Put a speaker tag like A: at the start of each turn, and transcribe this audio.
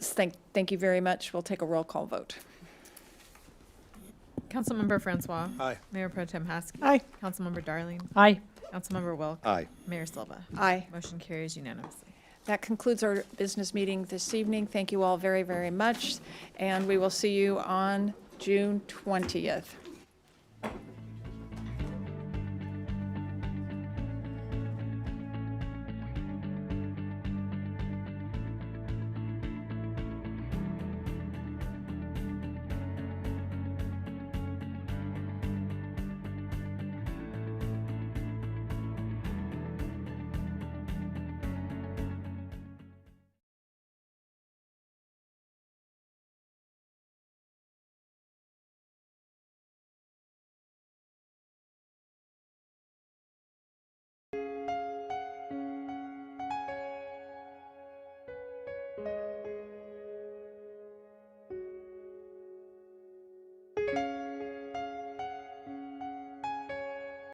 A: Yes, thank, thank you very much. We'll take a roll call vote.
B: Councilmember Francois.
C: Aye.
B: Mayor Pro Tem Haskell.
D: Aye.
B: Councilmember Darling.
D: Aye.
B: Councilmember Wilk.
C: Aye.
B: Mayor Silva.
A: Aye.
B: Motion carries unanimously.
A: That concludes our business meeting this evening. Thank you all very, very much, and we will see you on June 20th.